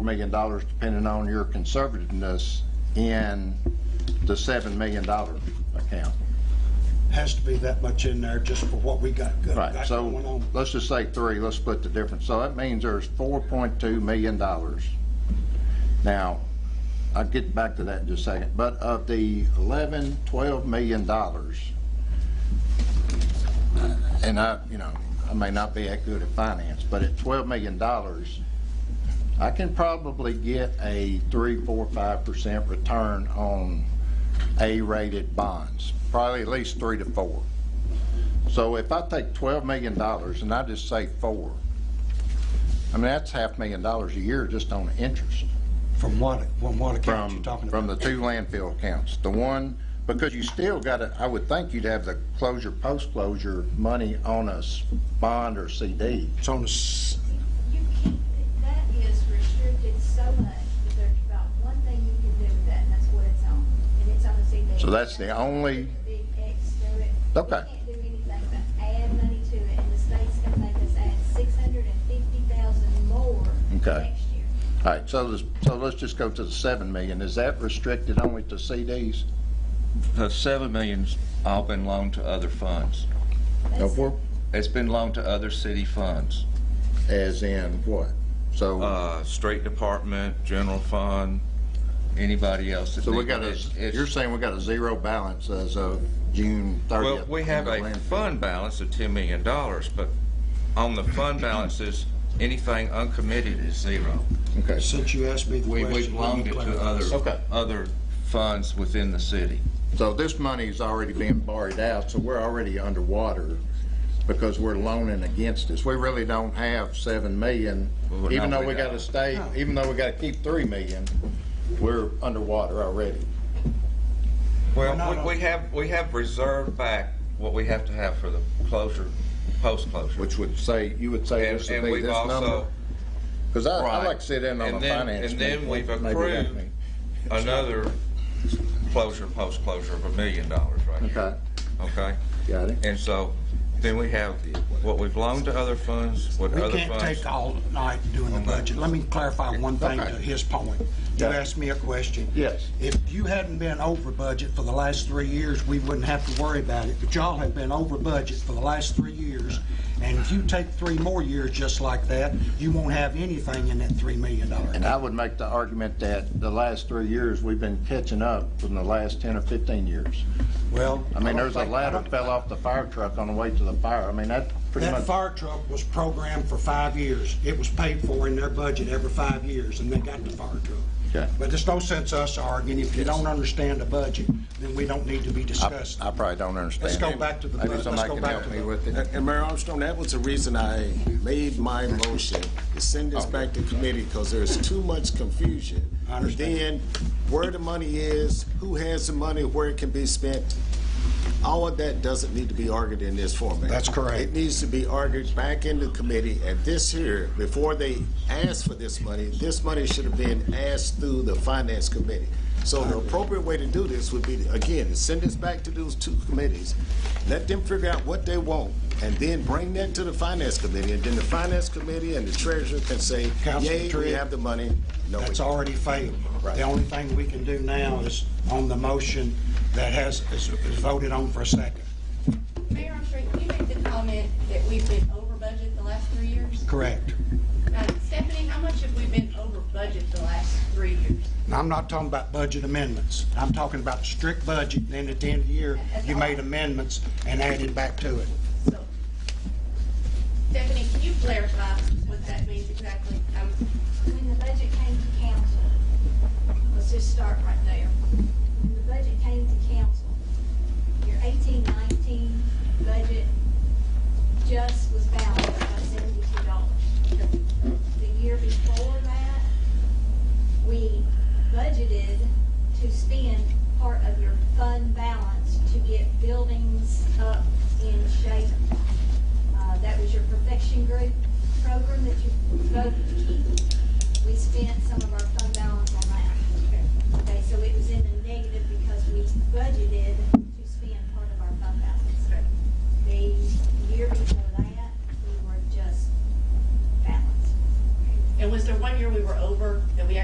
million dollars, depending on your conservativeness, in the seven million dollar account. Has to be that much in there just for what we got go- Right, got going so on. let's just say three, let's split the difference. So that means there's four point two million dollars. Now, I'll get back to that in just a second, but of the eleven, twelve million dollars, and I, you know, I may not be that good at finance, but at twelve million dollars, I can probably get a three, four, five percent return on A-rated bonds, probably at least three to four. So if I take twelve million dollars and I just say four, I mean, that's half million dollars a year just on interest From what, from what account you from, talking from the about? two landfill accounts. The one, because you still gotta, I would think you'd have the closure, post-closure money on a s- bond or CD. It's on the, s- You can't, that is restricted so much that there's about one thing you can do with that, and that's what it's on. And it's on the CD. So that's the only- Big X through it. Okay. You can't do anything but add money to it, and the state's gonna make us add six hundred and fifty thousand more Okay. next year. All right, so, this- so let's just go to the seven million. Is that restricted only to CDs? The seven million's uh, all been loaned to other funds. No, That's- for, It's been loaned to other city funds. as in what? So, Uh, street department, general fund, anybody else that. so we needs- got a, it's- it's- you're saying we got a zero balance as of June thirtieth? Well, we have a fund balance of ten million dollars, but on the fund balances, anything uncommitted is zero. Okay, since you asked me the We, question. we've let me loaned it to clarify. Okay. other, other funds within the city. So this money's already being borrowed out, so we're already underwater because we're loaning against this. We really don't have seven million, Well, we're even not though we gotta without. stay, even though we gotta keep three million, we're underwater already. We're not Well, on- we, we have, we have reserved back what we have to have for the closure, post-closure. Which would say, you would say And, this would and be we've this also, number? Cause I, I Right. like to sit in on And a then- finance. and then meeting. we've Maybe accrued. that may- another closure, post-closure of a million dollars right here. Okay, Okay? got it. And so, then we have what we've loaned to other funds, what We other can't funds. take all night doing the Okay. budget. Let me clarify one thing to Okay. his point. You Yeah. asked me a question. Yes. If you hadn't been over budget for the last three years, we wouldn't have to worry about it. But y'all have been over budget for the last three years. And if you take three more years just like that, you won't have anything in that $3 million. And I would make the argument that the last three years, we've been catching up from the last ten or fifteen years. Well. I mean, don't there's a think- I ladder don't- fell off the fire truck on the way to the fire. I mean, that pretty That much, fire truck was programmed for five years. It was paid for in their budget every five years, and they got the fire Okay. truck. But there's no sense us arguing. If you don't understand the budget, then we don't need to be I discussing. I probably don't understand. Let's go it. back to the- Maybe let's somebody go can back help to me the- with And it. and Mayor Armstrong, that was the reason I made my motion, to send this back to committee, because there's too much confusion. I understand. Then, where the money is, who has the money, where it can be spent, all of that doesn't need to be argued in this format. That's correct. It needs to be argued back into committee, and this here, before they ask for this money, this money should have been asked through the finance committee. So the appropriate way to do this would be, again, to send this back to those two committees, let them figure out what they want, and then bring that to the finance committee, and then the finance committee and the treasurer can say, Councilman yay, we Trigg, have the money, no, we That's don't. already failed. Right. The only thing we can do now is on the motion that has, is is voted on for a second. Mayor Armstrong, you made the comment that we've been over budget the last three years. Correct. Now, Stephanie, how much have we been over budget the last three years? And I'm not talking about budget amendments. I'm talking about strict budget, and then at the end of the year, you made amendments and added back to it. So, Stephanie, can you clarify what that means exactly? Um, When the budget came to council, let's just start right there. When the budget came to council, your eighteen nineteen budget just was balanced by seventy-two dollars. The year before that, we budgeted to spend part of your fund balance to get buildings up in shape. Uh, that was your perfection group program that you voted to keep. We spent